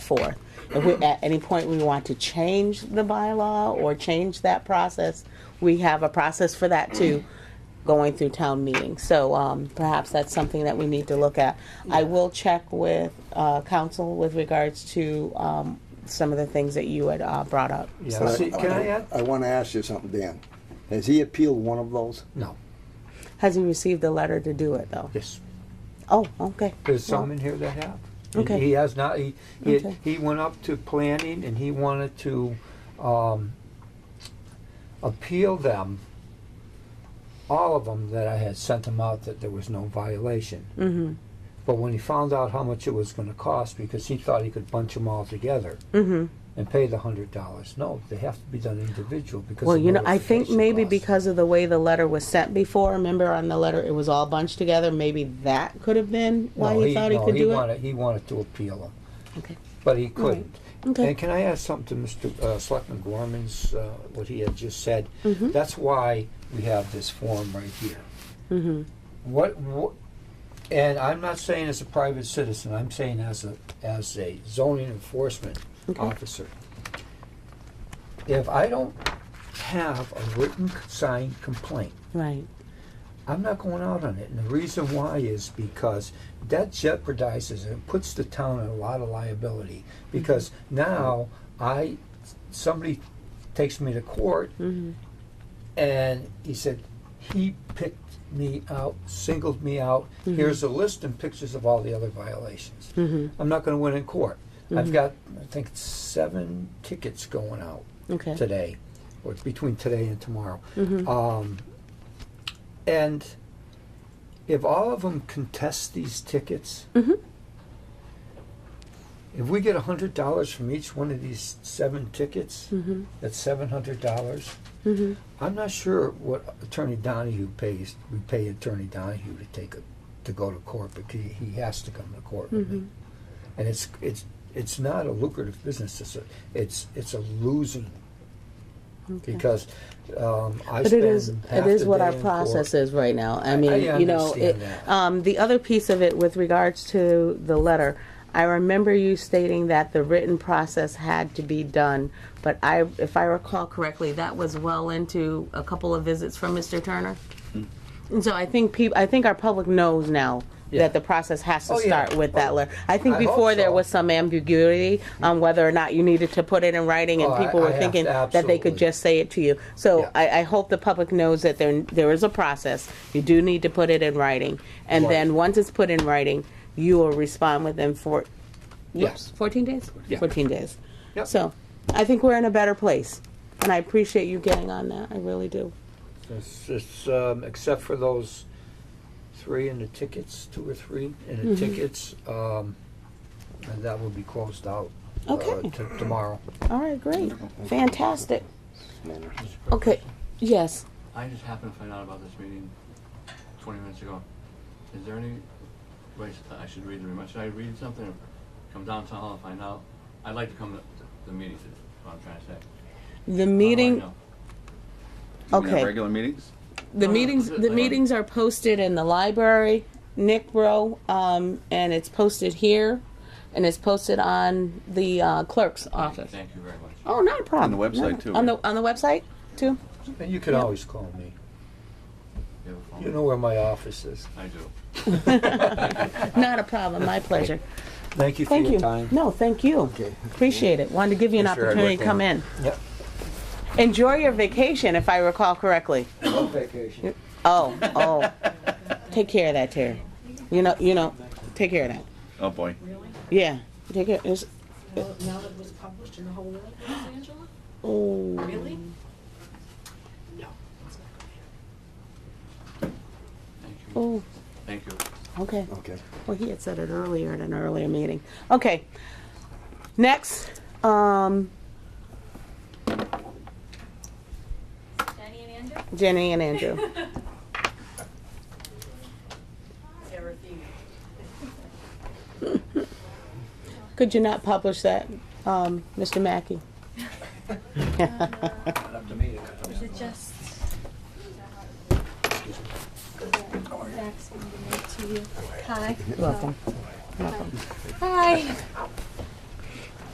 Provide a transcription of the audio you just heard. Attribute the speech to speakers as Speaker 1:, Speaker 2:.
Speaker 1: forth. If we, at any point we want to change the bylaw or change that process, we have a process for that too, going through town meeting. So um, perhaps that's something that we need to look at. I will check with uh, council with regards to um, some of the things that you had uh, brought up.
Speaker 2: Yeah, see, can I add?
Speaker 3: I want to ask you something, Dan. Has he appealed one of those?
Speaker 2: No,
Speaker 1: Has he received the letter to do it though?
Speaker 2: yes,
Speaker 1: Oh, okay.
Speaker 2: there's some in here that have. And
Speaker 1: Okay.
Speaker 2: He has not, he, he,
Speaker 1: Okay.
Speaker 2: he went up to planning and he wanted to, um, appeal them, all of them that I had sent him out that there was no violation.
Speaker 1: Mm-hmm.
Speaker 2: But when he found out how much it was gonna cost, because he thought he could bunch them all together
Speaker 1: Mm-hmm.
Speaker 2: and pay the hundred dollars, no, they have to be done individual because
Speaker 1: Well,
Speaker 2: of
Speaker 1: you know, I think
Speaker 2: notification
Speaker 1: maybe
Speaker 2: costs.
Speaker 1: because of the way the letter was sent before, remember on the letter, it was all bunched together, maybe that could have been why
Speaker 2: No,
Speaker 1: he thought he
Speaker 2: no,
Speaker 1: could do it?
Speaker 2: wanted- He wanted to appeal them.
Speaker 1: Okay.
Speaker 2: But he couldn't.
Speaker 1: Okay.
Speaker 2: And can I add something to Mr. uh, Selectman Gorman's, uh, what he had just said?
Speaker 1: Mm-hmm.
Speaker 2: That's why we have this form right here.
Speaker 1: Mm-hmm.
Speaker 2: What, what, and I'm not saying as a private citizen, I'm saying as a, as a zoning enforcement officer. If I don't have a written signed complaint,
Speaker 1: Right,
Speaker 2: I'm not going out on it. And the reason why is because that jeopardizes and puts the town in a lot of liability. Because now I, somebody takes me to court and he said, he picked me out, singled me out. Here's a list and pictures of all the other violations. I'm not going to win in court. I've got, I think, seven tickets going out
Speaker 1: okay. Mm-hmm.
Speaker 2: today, or between today and tomorrow. Um, and if all of them contest these tickets,
Speaker 1: Mm-hmm.
Speaker 2: if we get hundred dollars from each one of these seven tickets,
Speaker 1: Hmm. Mm-hmm.
Speaker 2: that's seven hundred dollars. I'm not sure what Attorney Donahue pays. We pay Attorney Donahue to take a, to go to court, but he, he has to come to court with me.
Speaker 1: Mm-hmm.
Speaker 2: And it's it's it's not a lucrative business. It's a, it's it's a losing because um, I
Speaker 1: But
Speaker 2: spend
Speaker 1: it is,
Speaker 2: half
Speaker 1: it is
Speaker 2: the
Speaker 1: what
Speaker 2: day
Speaker 1: our
Speaker 2: in
Speaker 1: process
Speaker 2: court.
Speaker 1: is right now. I
Speaker 2: I
Speaker 1: mean, you know,
Speaker 2: understand
Speaker 1: it-
Speaker 2: that.
Speaker 1: um, the other piece of it with regards to the letter, I remember you stating that the written process had to be done, but I, if I recall correctly, that was well into a couple of visits from Mr. Turner.
Speaker 2: Hmm.
Speaker 1: And so I think peop I think our public knows now
Speaker 2: Yeah.
Speaker 1: that the process has to
Speaker 2: Oh, yeah.
Speaker 1: start with that letter. I think
Speaker 2: I hope
Speaker 1: before there
Speaker 2: so.
Speaker 1: was some ambiguity on whether or not you needed to put it in writing, and
Speaker 2: Oh, I-
Speaker 1: people were
Speaker 2: I have-
Speaker 1: thinking that they could
Speaker 2: absolutely.
Speaker 1: just just say it to you. So
Speaker 2: Yeah.
Speaker 1: I, I hope the public knows that there, there is a process. You do need to put it in writing. And
Speaker 2: Right.
Speaker 1: then once it's put in writing, you will respond within four, yes,
Speaker 2: Yes.
Speaker 1: 14 days?
Speaker 2: Yeah.
Speaker 1: 14 days.
Speaker 2: Yep.
Speaker 1: So I think we're in a better place. And I appreciate you getting on that. I really do.
Speaker 2: It's, it's, um, except for those three in the tickets, two or three in
Speaker 1: Mm-hmm.
Speaker 2: the tickets, um, and that will be closed out. uh,
Speaker 1: Okay.
Speaker 2: to- Tomorrow.
Speaker 1: All right, great. Fantastic. Okay, yes.
Speaker 4: I just happened to find out about this meeting twenty minutes ago. Is there any way s- uh, I should read the remarks? Should I read something or come down to town hall and find out? I'd like to come to th- the meeting, is what I'm trying to say. How do
Speaker 1: The
Speaker 4: Oh, I
Speaker 1: meeting,
Speaker 4: know?
Speaker 5: Do we have
Speaker 1: Okay.
Speaker 5: Regular meetings?
Speaker 1: the
Speaker 4: No, no,
Speaker 1: meetings,
Speaker 4: put Uh, it
Speaker 1: the
Speaker 4: like-
Speaker 1: meetings are posted in the library, Nick Row, um, and it's posted here, and it's posted on the uh, clerk's office.
Speaker 4: Thank you very much.
Speaker 1: Oh, not a problem.
Speaker 5: On the website,
Speaker 1: No.
Speaker 5: too,
Speaker 1: On
Speaker 5: right?
Speaker 1: the on the website too.
Speaker 2: And you can always call me.
Speaker 4: You have a phone?
Speaker 2: You know where my office is.
Speaker 4: I do.
Speaker 1: Not a problem. My pleasure.
Speaker 2: Thank you for
Speaker 1: Thank
Speaker 2: your
Speaker 1: you.
Speaker 2: time.
Speaker 1: No, thank you.
Speaker 3: Okay.
Speaker 1: Appreciate it. Wanted to give you an
Speaker 5: I'm sure I'd
Speaker 1: opportunity
Speaker 5: work
Speaker 1: to come
Speaker 5: on
Speaker 1: in.
Speaker 2: Yep.
Speaker 1: Enjoy your vacation, if I recall correctly.
Speaker 2: vacation.
Speaker 1: Oh, oh. take care of that, Terry. You know, you know. Take care of that.
Speaker 5: Oh, boy.
Speaker 1: Yeah. Take care. It's,
Speaker 6: Well, now that it was published in the whole world, Angela?
Speaker 1: oh.
Speaker 6: Really?
Speaker 4: Thank you.
Speaker 1: Oh.
Speaker 4: Thank you.
Speaker 1: Okay.
Speaker 3: Okay.
Speaker 1: Well, he had said it earlier at an earlier meeting. Okay. Next, um,
Speaker 7: Jenny and Andrew?
Speaker 1: Jenny and Andrew. Could you not publish that, um, Mr. Mackey?
Speaker 7: Is it just? Zach's gonna give it to you. Hi.
Speaker 1: Welcome.
Speaker 7: Hi.